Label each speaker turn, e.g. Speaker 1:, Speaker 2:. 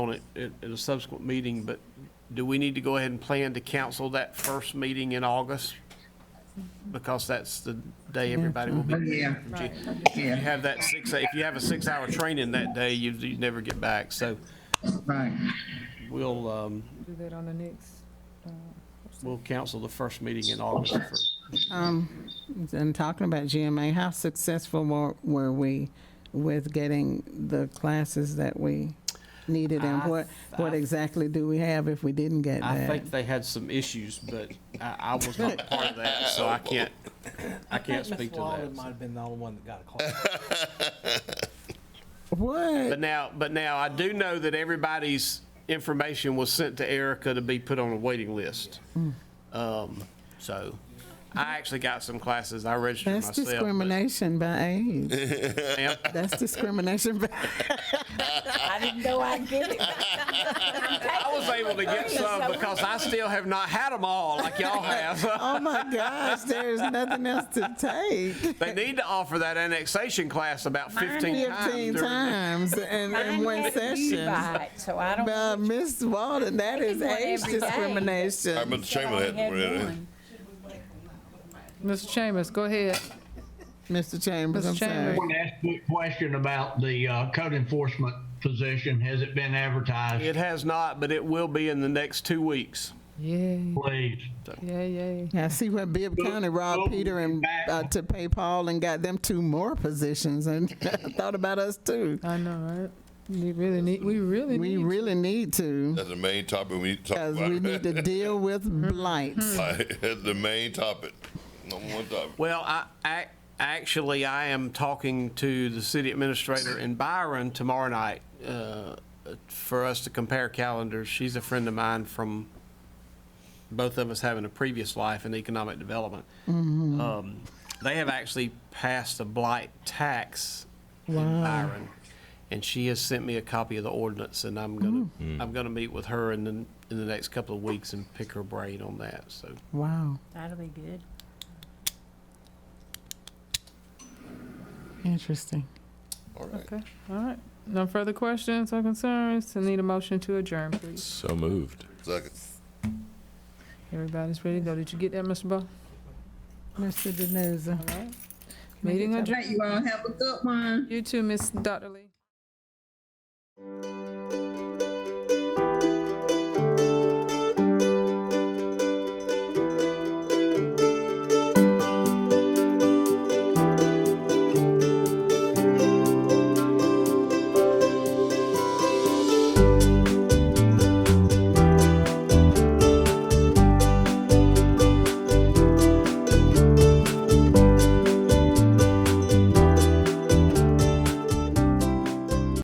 Speaker 1: on it at, at a subsequent meeting, but do we need to go ahead and plan to cancel that first meeting in August? Because that's the day everybody will be.
Speaker 2: Yeah,
Speaker 1: If you
Speaker 2: yeah,
Speaker 1: have that six, if you have a six-hour training that day, you, you never get back, so
Speaker 2: right.
Speaker 1: we'll, um,
Speaker 3: Do that on the next,
Speaker 1: we'll cancel the first meeting in August for,
Speaker 4: And talking about GMA, how successful were, were we with getting the classes that we needed? And
Speaker 1: I-
Speaker 4: what, what
Speaker 1: I-
Speaker 4: exactly do we have if we didn't get
Speaker 1: I
Speaker 4: that?
Speaker 1: think they had some issues, but I, I was not part of that, so I can't, I can't speak to that.
Speaker 5: Might have been the only one that got a call.
Speaker 4: What?
Speaker 1: But now, but now I do know that everybody's information was sent to Erica to be put on a waiting list. Um, so I actually got some classes. I registered
Speaker 4: That's
Speaker 1: myself. but-
Speaker 4: discrimination by age.
Speaker 1: Ma'am,
Speaker 4: That's discrimination by,
Speaker 6: I didn't know I'd get it.
Speaker 1: I was able to get some because I still have not had them all like y'all have.
Speaker 4: oh my gosh, there's nothing else to take.
Speaker 1: They need to offer that annexation class about fifteen times.
Speaker 4: Fifteen
Speaker 1: during the-
Speaker 4: times in, in
Speaker 6: Mine
Speaker 4: one
Speaker 6: had you
Speaker 4: session.
Speaker 6: by it, So I don't.
Speaker 4: But Miss Walden, that
Speaker 6: I
Speaker 4: is
Speaker 6: did one
Speaker 4: age
Speaker 6: every day.
Speaker 4: discrimination.
Speaker 7: I'm at the
Speaker 6: I
Speaker 7: chamber
Speaker 6: only
Speaker 7: that.
Speaker 6: had
Speaker 7: really.
Speaker 6: one.
Speaker 3: Mr. Chambers, go ahead.
Speaker 4: Mr. Chambers,
Speaker 3: Mr.
Speaker 4: I'm sorry.
Speaker 3: Chambers.
Speaker 8: One last quick question about the uh, code enforcement position. Has it been advertised?
Speaker 1: It has not, but it will be in the next two weeks.
Speaker 3: Yay,
Speaker 8: Please.
Speaker 3: yay, yay.
Speaker 4: I see where Bibb County robbed Peter and uh, to pay Paul and got them two more positions and thought about us too.
Speaker 3: I know, right? We really need, we really
Speaker 4: We
Speaker 3: need.
Speaker 4: really need to
Speaker 7: That's the main topic we need to talk
Speaker 4: because
Speaker 7: about.
Speaker 4: we need to deal with blights.
Speaker 7: That's the main topic. Number one topic.
Speaker 1: Well, I, I, actually, I am talking to the city administrator in Byron tomorrow night uh, for us to compare calendars. She's a friend of mine from both of us having a previous life in economic development. Um, They have actually passed a blight tax in Byron. And she has sent me a copy of the ordinance and I'm gonna, I'm gonna meet with her in the, in the next couple of weeks and pick her brain on that, so.
Speaker 4: Hmm. Wow.
Speaker 6: That'll be good.
Speaker 4: Interesting.
Speaker 7: All right.
Speaker 3: Okay, all right. No further questions or concerns? I need a motion to adjourn, please.
Speaker 9: So moved.
Speaker 7: Second.
Speaker 3: Everybody's ready to go. Did you get that, Mr. Ball?
Speaker 4: Mr. Denuza.
Speaker 3: Meeting
Speaker 2: All
Speaker 3: adjourned.
Speaker 2: right, you all have a good one.
Speaker 3: You too, Miss Dr. Lee.